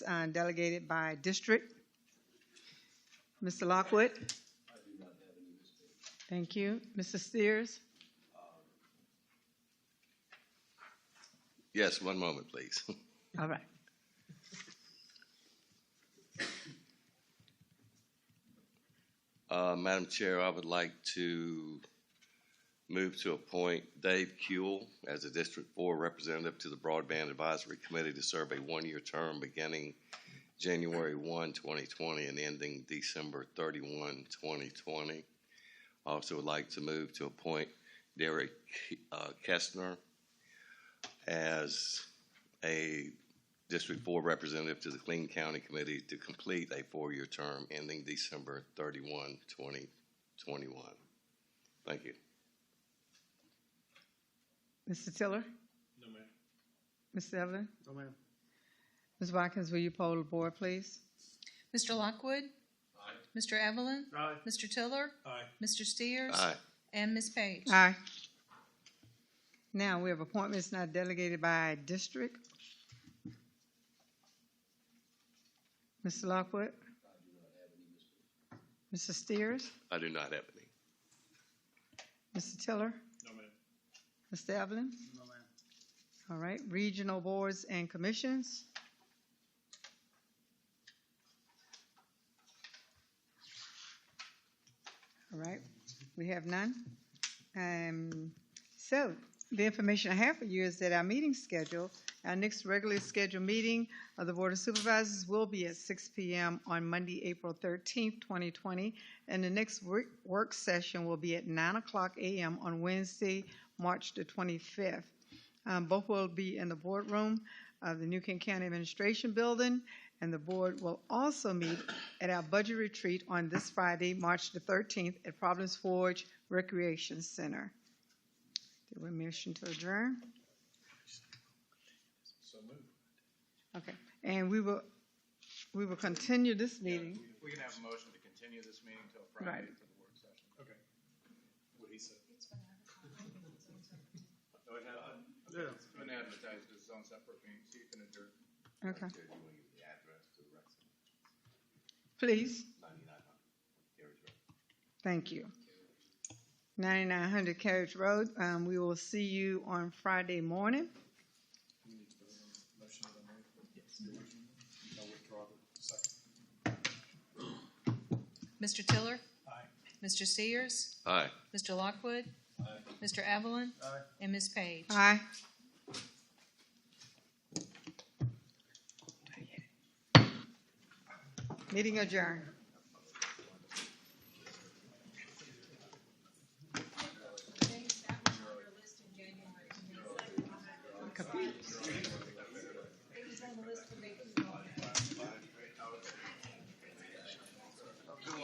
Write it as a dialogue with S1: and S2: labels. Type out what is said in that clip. S1: uh, delegated by district. Mr. Lockwood? Thank you. Mr. Steers?
S2: Yes, one moment, please.
S1: All right.
S2: Uh, Madam Chair, I would like to move to appoint Dave Kuhl as a District Four Representative to the Broadband Advisory Committee to serve a one-year term beginning January 1, 2020, and ending December 31, 2020. Also would like to move to appoint Derek uh, Kestner as a District Four Representative to the Clean County Committee to complete a four-year term ending December 31, 2021. Thank you.
S1: Mr. Tiller?
S3: No, ma'am.
S1: Ms. Evelyn?
S3: No, ma'am.
S1: Ms. Watkins, will you poll the board, please?
S4: Mr. Lockwood?
S3: Aye.
S4: Mr. Evelyn?
S3: Aye.
S4: Mr. Tiller?
S3: Aye.
S4: Mr. Steers?
S2: Aye.
S4: And Ms. Page?
S1: Aye. Now, we have appointments not delegated by district. Mr. Lockwood? Mr. Steers?
S2: I do not have any.
S1: Mr. Tiller?
S3: No, ma'am.
S1: Mr. Evelyn?
S3: No, ma'am.
S1: All right, regional boards and commissions. All right, we have none. Um, so, the information I have for you is that our meeting schedule, our next regularly scheduled meeting of the Board of Supervisors will be at six P M. on Monday, April thirteenth, twenty twenty. And the next work, work session will be at nine o'clock A M. on Wednesday, March the twenty-fifth. Um, both will be in the boardroom of the New King County Administration Building, and the board will also meet at our budget retreat on this Friday, March the thirteenth, at Providence Forge Recreation Center. Do we motion to adjourn?
S3: So moved.
S1: Okay, and we will, we will continue this meeting.
S5: We can have a motion to continue this meeting until
S1: Right.
S5: Friday for the work session.
S3: Okay. What he said.
S5: So it has,
S3: Yeah.
S5: it's been advertised as its own separate meeting, so you can adjourn.
S1: Okay,
S5: the address to the rest?
S1: please. Thank you. Ninety-nine hundred Carriage Road, um, we will see you on Friday morning.
S3: Motion that I made. Yes. No withdrawal. Second.
S4: Mr. Tiller?
S3: Aye.
S4: Mr. Steers?
S2: Aye.
S4: Mr. Lockwood?
S3: Aye.
S4: Mr. Evelyn?
S3: Aye.
S4: And Ms. Page?
S1: Aye. Meeting adjourned.